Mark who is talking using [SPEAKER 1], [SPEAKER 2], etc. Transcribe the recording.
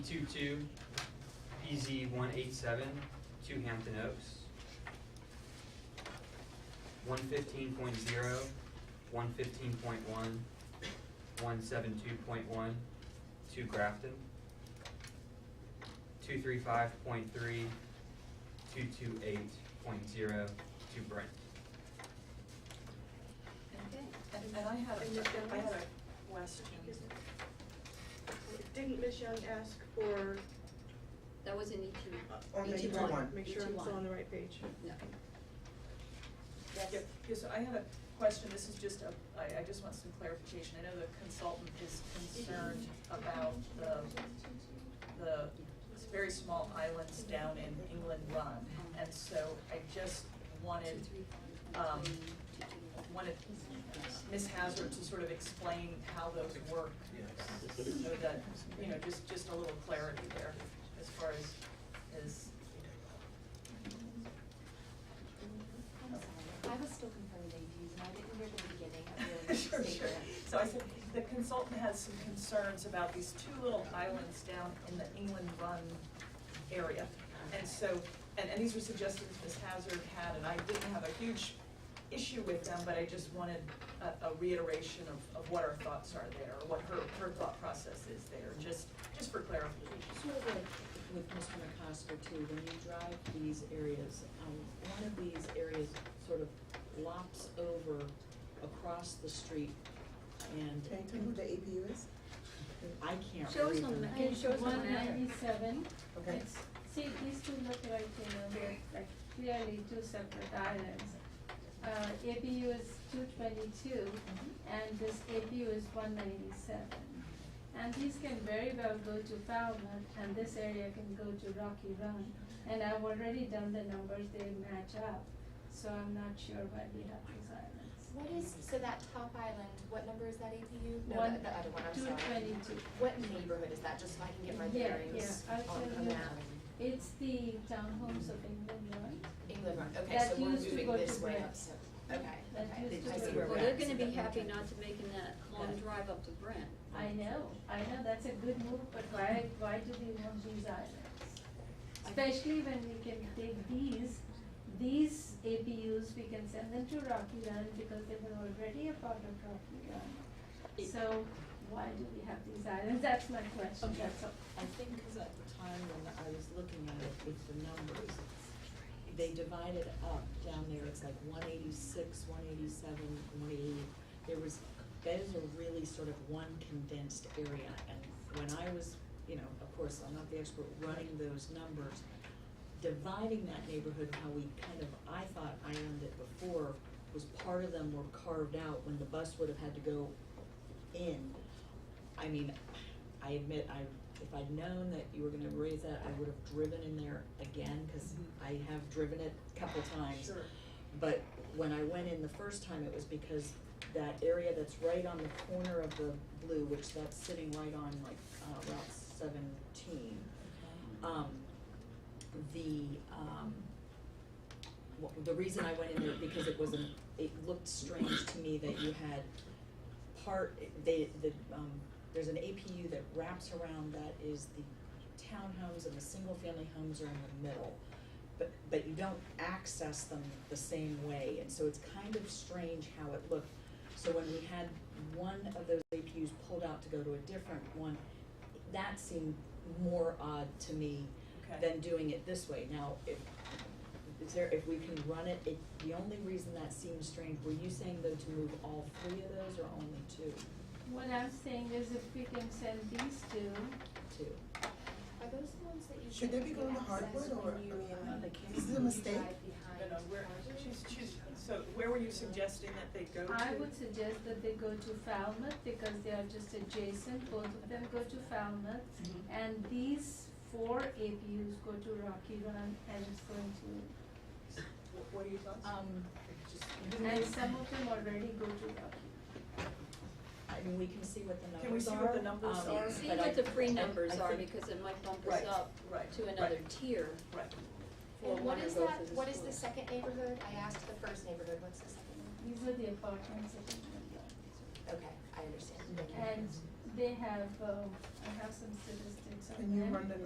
[SPEAKER 1] Two-two, PZ one-eight-seven, two Hampton Oaks. One fifteen point zero, one fifteen point one, one seven-two point one, two Grafton. Two-three-five point three, two-two-eight point zero, two Brent.
[SPEAKER 2] And, and I had,
[SPEAKER 3] And Ms.
[SPEAKER 2] a- I had
[SPEAKER 3] Jones?
[SPEAKER 2] a question.
[SPEAKER 3] Didn't Ms. Young ask for? uh, E
[SPEAKER 4] That was in ET.
[SPEAKER 5] On the
[SPEAKER 2] E
[SPEAKER 4] ET
[SPEAKER 6] E
[SPEAKER 5] ET one.
[SPEAKER 3] Make sure
[SPEAKER 4] ET
[SPEAKER 3] I'm still on
[SPEAKER 4] one.
[SPEAKER 3] the right page.
[SPEAKER 4] No.
[SPEAKER 2] Yeah, because I had a question, this is just a, I, I just want some clarification. I know the consultant is concerned about the, the very small islands down in England Run. And so I just wanted, um, wanted Ms. Hazard to sort of explain how those work. So that, you know, just, just a little clarity there as far as, as,
[SPEAKER 6] I was still confirming APs and I didn't hear the beginning of your
[SPEAKER 2] Sure, sure.
[SPEAKER 6] statement.
[SPEAKER 2] So I said, the consultant has some concerns about these two little islands down in the England Run area. And so, and, and these were suggestions Ms. Hazard had, and I didn't have a huge issue with them, but I just wanted a, a reiteration of, of what our thoughts are there, or what her, her thought process is there, just, just for clarification.
[SPEAKER 7] Sort of like with Mr. McCosker too, when you drive these areas, um, one of these areas sort of lops over across the street and
[SPEAKER 5] Can you tell me who the APU is?
[SPEAKER 7] I can't read them.
[SPEAKER 4] Show us on the map.
[SPEAKER 8] Page
[SPEAKER 4] Shows on
[SPEAKER 8] one
[SPEAKER 4] the map.
[SPEAKER 8] ninety-seven.
[SPEAKER 5] Okay.
[SPEAKER 8] See, these two look like, you know, they're like clearly two separate islands. Uh, APU is two twenty-two and this APU is one ninety-seven. And these can very well go to Falmouth and this area can go to Rocky Run. And I've already done the numbers, they match up, so I'm not sure why we have these islands.
[SPEAKER 6] What is, so that top island, what number is that APU? No,
[SPEAKER 8] One-
[SPEAKER 6] the- the other one, I'm
[SPEAKER 8] Two
[SPEAKER 6] sorry.
[SPEAKER 8] twenty-two.
[SPEAKER 6] What neighborhood is that, just so I can get my
[SPEAKER 8] Yeah,
[SPEAKER 6] bearings
[SPEAKER 8] yeah, I'll
[SPEAKER 6] on
[SPEAKER 8] tell
[SPEAKER 6] a
[SPEAKER 8] you.
[SPEAKER 6] map?
[SPEAKER 8] It's the townhomes of England, right?
[SPEAKER 6] England Run, okay,
[SPEAKER 8] That
[SPEAKER 6] so we're
[SPEAKER 8] used to
[SPEAKER 6] moving
[SPEAKER 8] go
[SPEAKER 6] this
[SPEAKER 8] to
[SPEAKER 6] way
[SPEAKER 8] Brent.
[SPEAKER 6] up, so, okay,
[SPEAKER 8] That used
[SPEAKER 6] okay,
[SPEAKER 8] to
[SPEAKER 6] I see where
[SPEAKER 8] go to
[SPEAKER 6] we're
[SPEAKER 4] Well,
[SPEAKER 6] at.
[SPEAKER 4] they're
[SPEAKER 8] Brent.
[SPEAKER 4] gonna be happy not to making that long drive up to Brent.
[SPEAKER 8] I know, I know, that's a good move, but why, why do we want these islands? Especially when we can take these, these APUs, we can send them to Rocky Run because they were already a part of Rocky Run. So why do we have these islands? That's my question,
[SPEAKER 7] Okay.
[SPEAKER 8] that's all.
[SPEAKER 7] I think because at the time when I was looking at it with the numbers, it's- they divide it up down there, it's like one eighty-six, one eighty-seven, one eighty. There was, that is a really sort of one condensed area, and when I was, you know, of course, I'm not the expert running those numbers, dividing that neighborhood, how we kind of, I thought islanded it before, was part of them were carved out when the bus would have had to go in. I mean, I admit, I, if I'd known that you were gonna raise that, I would have driven in there again, cause I have driven it a couple times.
[SPEAKER 2] Sure.
[SPEAKER 7] But when I went in the first time, it was because that area that's right on the corner of the blue, which that's sitting right on like, uh, Route seventeen. Um, the, um, wha- the reason I went in there, because it wasn't, it looked strange to me that you had part, they, the, um, there's an APU that wraps around that is the townhomes and the single-family homes are in the middle. But, but you don't access them the same way, and so it's kind of strange how it looked. So when we had one of those APUs pulled out to go to a different one, that seemed more odd to me
[SPEAKER 2] Okay.
[SPEAKER 7] than doing it this way. Now, if, is there, if we can run it, it, the only reason that seems strange, were you saying though to move all three of those or only two?
[SPEAKER 8] What I'm saying is if we can send these two,
[SPEAKER 7] Two?
[SPEAKER 6] Are those the ones that you
[SPEAKER 5] Should they
[SPEAKER 6] said
[SPEAKER 5] be
[SPEAKER 6] you
[SPEAKER 5] going to
[SPEAKER 6] access
[SPEAKER 5] hardwood or-
[SPEAKER 6] when you,
[SPEAKER 5] I mean,
[SPEAKER 6] um,
[SPEAKER 7] they can't.
[SPEAKER 5] Is it a
[SPEAKER 6] you
[SPEAKER 5] mistake?
[SPEAKER 6] drive behind
[SPEAKER 2] No, no, where,
[SPEAKER 6] Hardwood?
[SPEAKER 2] she's, she's, so where were you suggesting that they go to?
[SPEAKER 8] I would suggest that they go to Falmouth because they are just adjacent, both of them go to Falmouth. And these four APUs go to Rocky Run and it's going to,
[SPEAKER 2] Wh- What are your thoughts?
[SPEAKER 7] Um,
[SPEAKER 2] Just-
[SPEAKER 8] and some of them already go to Rocky.
[SPEAKER 7] I mean, we can see what the numbers are.
[SPEAKER 2] Can we see what the numbers
[SPEAKER 7] um,
[SPEAKER 2] are?
[SPEAKER 4] See
[SPEAKER 7] but I-
[SPEAKER 4] what the free
[SPEAKER 7] I- I
[SPEAKER 4] numbers are,
[SPEAKER 7] think-
[SPEAKER 4] because it might bump us
[SPEAKER 2] Right,
[SPEAKER 4] up
[SPEAKER 2] right,
[SPEAKER 4] to another
[SPEAKER 2] right.
[SPEAKER 4] tier
[SPEAKER 2] Right.
[SPEAKER 4] for
[SPEAKER 6] And
[SPEAKER 4] one
[SPEAKER 6] what
[SPEAKER 4] or
[SPEAKER 6] is
[SPEAKER 4] both
[SPEAKER 6] that,
[SPEAKER 4] of the
[SPEAKER 6] what is the
[SPEAKER 4] schools.
[SPEAKER 6] second neighborhood? I asked the first neighborhood, what's the second
[SPEAKER 8] These are the apartments that are in
[SPEAKER 6] one? Okay, I understand.
[SPEAKER 8] there. And they have, um, I have some statistics on them.
[SPEAKER 2] Can you run the